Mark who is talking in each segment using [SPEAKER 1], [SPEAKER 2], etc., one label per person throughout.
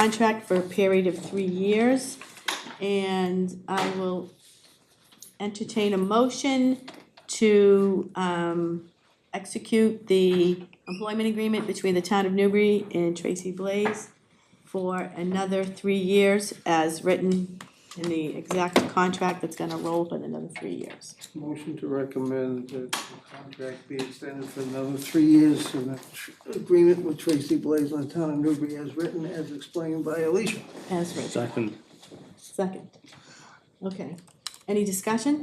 [SPEAKER 1] contract for a period of three years. And I will entertain a motion to um, execute the employment agreement between the town of Newbury and Tracy Blaze for another three years as written in the exact contract that's gonna roll for another three years.
[SPEAKER 2] Motion to recommend that the contract be extended for another three years and the tr- agreement with Tracy Blaze on Town of Newbury as written, as explained by Alicia.
[SPEAKER 1] As written,
[SPEAKER 3] Second.
[SPEAKER 1] second. Okay, any discussion?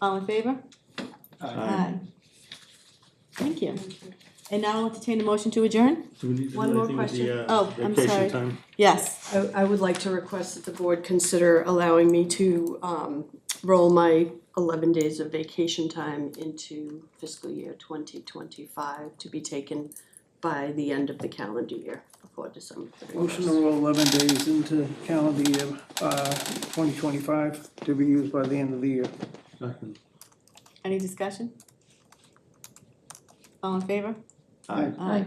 [SPEAKER 1] All in favor?
[SPEAKER 3] Uh,
[SPEAKER 1] Aye. Thank you. And now I'll entertain a motion to adjourn?
[SPEAKER 3] Do we need to do
[SPEAKER 4] One more
[SPEAKER 3] anything with the, uh,
[SPEAKER 1] Oh, I'm sorry.
[SPEAKER 3] vacation time?
[SPEAKER 1] Yes,
[SPEAKER 4] I, I would like to request that the board consider allowing me to, um, roll my eleven days of vacation time into fiscal year twenty twenty-five to be taken by the end of the calendar year before December
[SPEAKER 2] Motion to
[SPEAKER 4] thirty-first.
[SPEAKER 2] roll eleven days into calendar year, uh, twenty twenty-five to be used by the end of the year.
[SPEAKER 3] Second.
[SPEAKER 1] any discussion? All in favor?
[SPEAKER 2] Aye.
[SPEAKER 1] Aye.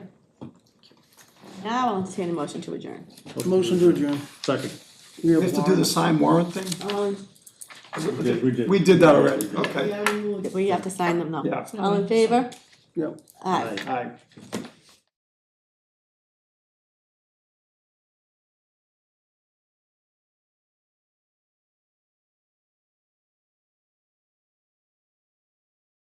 [SPEAKER 1] Now I'll entertain a motion to adjourn.
[SPEAKER 2] Motion to adjourn.
[SPEAKER 3] Second.
[SPEAKER 2] We
[SPEAKER 5] We have to do the sign warrant thing?
[SPEAKER 1] All in-
[SPEAKER 3] We did, we did.
[SPEAKER 5] We did that already, okay.
[SPEAKER 1] We have to sign them though.
[SPEAKER 5] Yeah.
[SPEAKER 1] All in favor?
[SPEAKER 2] Yep.
[SPEAKER 1] Aye.
[SPEAKER 5] Aye.